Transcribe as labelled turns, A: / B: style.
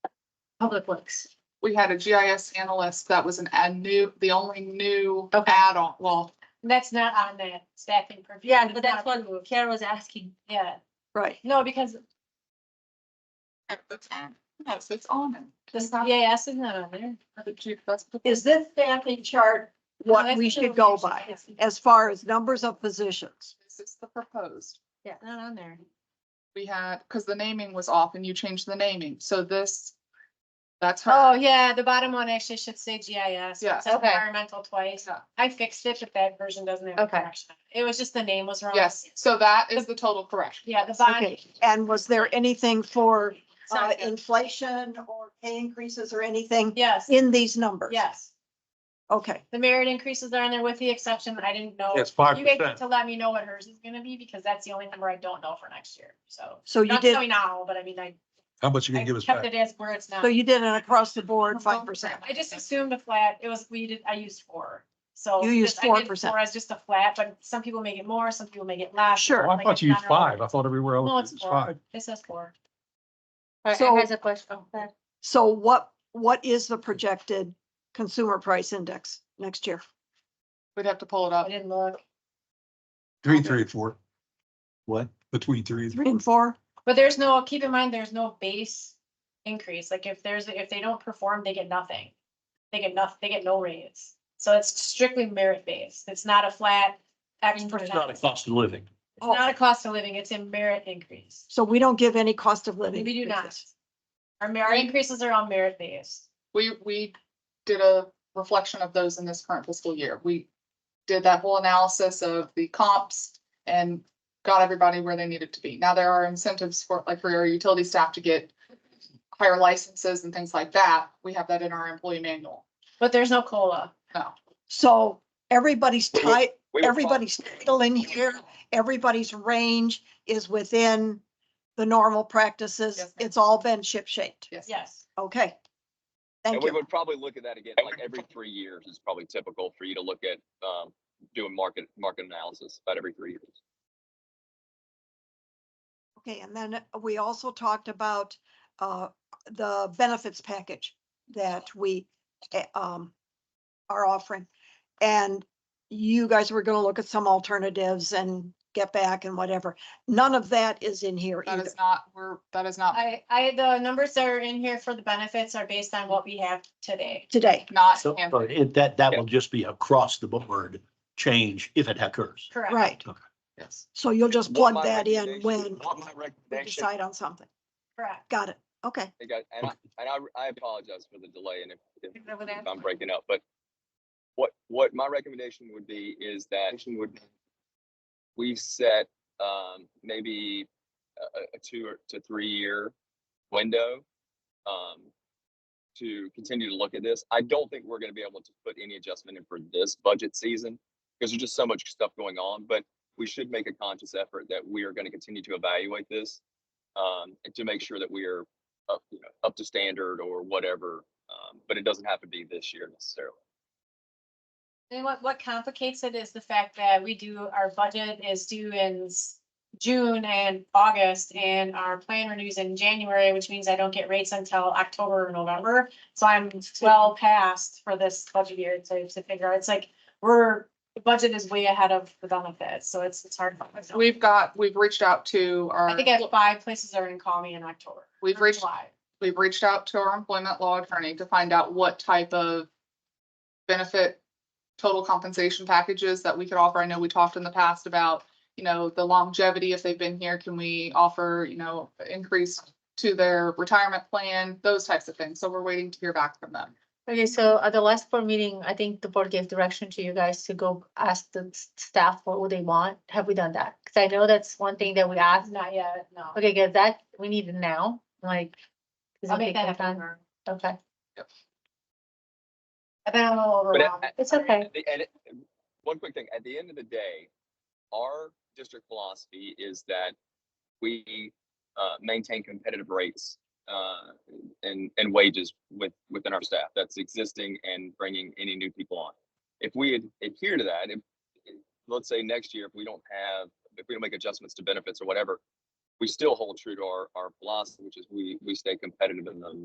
A: Public Works.
B: we had a GIS analyst that was an add new, the only new
A: Okay.
B: add-on, well,
C: That's not on the staffing. per-
A: Yeah, but
C: not
A: that's what
C: approved.
A: Kara was asking.
C: Yeah,
A: Right.
C: no, because
B: at the time, yes, it's on it.
C: the EAS E is not on there.
B: For the chief, that's the-
D: Is this staffing chart what
C: That's
D: we
C: the
D: should go
C: location.
D: by
C: Yes,
D: as far as numbers of positions?
B: This is the proposed.
C: Yeah, not on there.
B: We had, because the naming was off and you changed the naming, so this, that's
C: Oh,
B: her.
C: yeah, the bottom one actually should say GIS.
B: Yeah.
C: It says
A: Okay.
C: Environmental twice.
B: Yeah.
C: I fixed it, but that version doesn't have. a
A: Okay.
C: correction. It was just the name was wrong.
B: Yes, so that is the total correction.
C: Yeah, the bond.
D: Okay, and was there anything for uh,
C: sounds good.
D: inflation or pay increases or anything
C: Yes,
D: in these numbers?
C: yes.
D: Okay,
C: The merit increases are in there with the exception. I didn't know.
E: It's five
C: You guys need
E: percent.
C: to let me know what hers is gonna be because that's the only number I don't know for next year. So.
D: so you
C: Not
D: did,
C: knowing now, but I mean, I,
E: How much you
C: I
E: gonna give us
C: kept
E: back?
C: it as where it's now.
D: so you did an across the board five percent.
C: I just assumed a flat, it was, we did, I used four, so.
D: You used
C: just- I did
D: 4%.
C: Four as just a flat, but some people make it more, some people make it less.
D: Sure.
E: Oh, I
C: like
E: thought
C: a
E: you used
C: general-
E: five. I thought everywhere
C: No, it's
E: else it was
C: four.
E: five.
C: It says four.
A: All right,
D: So-
A: I has a question. Oh, that-
D: So what, what is the projected consumer price index next year?
B: We'd have to pull it
C: I
B: up.
C: didn't look,
E: Three, three, four.
F: What?
E: Between three and three.
D: Three and four?
C: but there's no, keep in mind, there's no base increase, like if there's, if they don't perform, they get nothing. They get nothing, they get no raise, so it's strictly merit based, it's not a flat
A: Mm-hmm.
C: X percent.
F: It's not a cost of living.
C: It's not a cost of living, it's a merit increase.
D: So we don't give any cost of living.
C: We do not.
D: increases.
C: Our merit increases are on merit based.
B: We, we did a reflection of those in this current fiscal year. We did that whole analysis of the comps and got everybody where they needed to be. Now there are incentives for, like for our utility staff to get higher licenses and things like that. We have that in our employee manual.
C: But there's no cola.
B: No,
D: So everybody's tight,
F: We were fine.
D: everybody's title in here, everybody's range is within the normal
B: Yes,
D: practices.
B: ma'am.
D: It's all been ship shaped.
B: yes.
C: Yes.
D: Okay.
F: And
D: Thank
F: we
D: you.
F: would probably look at that again, like every three years is probably typical for you to look at, um, doing market, market analysis about every three years.
D: Okay, and then we also talked about uh, the benefits package that we eh, um, are offering. And you guys were gonna look at some alternatives and get back and whatever. None of that is in here
B: That
D: either.
B: is not, we're, that is not,
C: I, I, the numbers that are in here for the benefits are based on what we have today.
D: Today,
B: not.
G: So,
B: handled.
G: but it, that, that will just be across the board change if it occurs.
C: Correct.
D: right.
B: Yes.
D: So you'll just
F: What
D: plug
F: my
D: that in
F: recommendation-
D: when
F: What my
D: we
F: recommendation,
D: decide on something.
C: Correct.
D: Got it. Okay.
F: Hey, guys, and I, and I, I apologize for the delay and if, if
C: Go with that.
F: if I'm breaking up, but what, what my recommendation would be is that we've set, um, maybe a, a- a two or to three year window, um, to continue to look at this. I don't think we're gonna be able to put any adjustment in for this budget season because there's just so much stuff going on, but we should make a conscious effort that we are gonna continue to evaluate this, um, and to make sure that we are up, you know, up to standard or whatever. Um, but it doesn't have to be this year necessarily.
C: And what, what complicates it is the fact that we do, our budget is due in s- June and August and our plan renews in January, which means I don't get rates until October or November. So I'm well past for this budget year to, to figure out. It's like, we're, the budget is way ahead of the benefits, so it's, it's hard.
B: We've got, we've reached out to
C: I
B: our,
C: think I have five places that are gonna call me in October.
B: We've reached-
C: July.
B: we've reached out to our employment law attorney to find out what type of benefit total compensation packages that we could offer. I know we talked in the past about, you know, the longevity, if they've been here, can we offer, you know, increase to their retirement plan, those types of things. So we're waiting to hear back from them.
A: Okay, so at the last board meeting, I think the board gave direction to you guys to go ask the s- staff what would they want. Have we done that? Cause I know that's one thing that we asked.
C: Not yet, no.
A: Okay, good. That, we need it now, like. 'cause
C: I'll
A: it'll
C: make
A: take
C: that
A: some time.
C: happen.
A: Okay,
C: I've been a little
F: But
C: overwhelmed.
F: at-
A: it's
F: I mean,
A: okay.
F: at the- And it- one quick thing, at the end of the day, our district philosophy is that we uh, maintain competitive rates uh, and, and wages with, within our staff that's existing and bringing any new people on. If we ad- adhere to that, if, if- let's say next year, if we don't have, if we don't make adjustments to benefits or whatever, we still hold true to our, our philosophy, which is we, we stay competitive in the